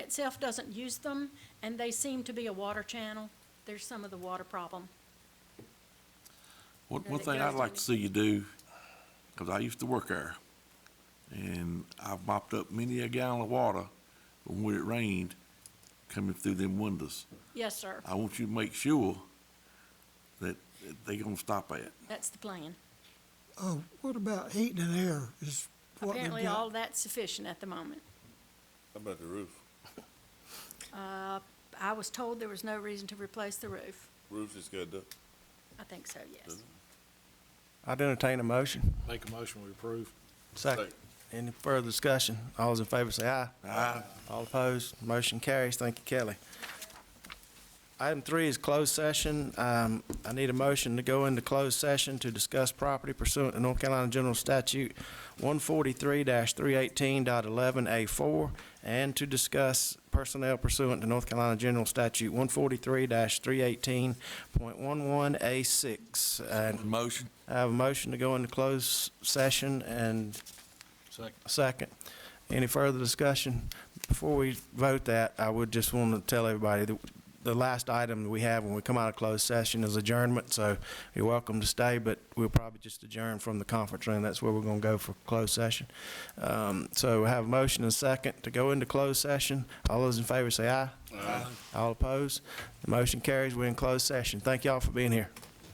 itself doesn't use them, and they seem to be a water channel. There's some of the water problem. One, Or one that thing goes I'd like in. to see you do, because I used to work there, and I've mopped up many a gallon of water from when it rained coming through them windows. Yes, sir, Oh. I want you to make sure that that they gonna stop at. that's the plan. Oh, what about heat and air is what we've Apparently, all got? that's sufficient at the moment. How about the roof? Uh, I was told there was no reason to replace the roof. Roof is good, though. I think so, yes. I'd entertain a motion. Make a motion, we approve. Second. Second. Any further discussion? All those in favor say aye. Aye. All opposed, motion carries. Thank you, Kelly. Item three is closed session. Um, I need a motion to go into closed session to discuss property pursuant to North Carolina General Statute one forty-three 31811 A four and to discuss personnel pursuant to North Carolina General Statute one forty-three three eighteen point one one A six. And Motion? I have a motion to go into closed session and Second. a second. Any further discussion? Before we vote that, I would just want to tell everybody that the last item we have when we come out of closed session is adjournment, so you're welcome to stay, but we'll probably just adjourn from the conference room. That's where we're going to go for closed session. Um, So we have a motion and a second to go into closed session. All those in favor say aye. Aye. All opposed? The motion carries. We're in closed session. Thank y'all for being here.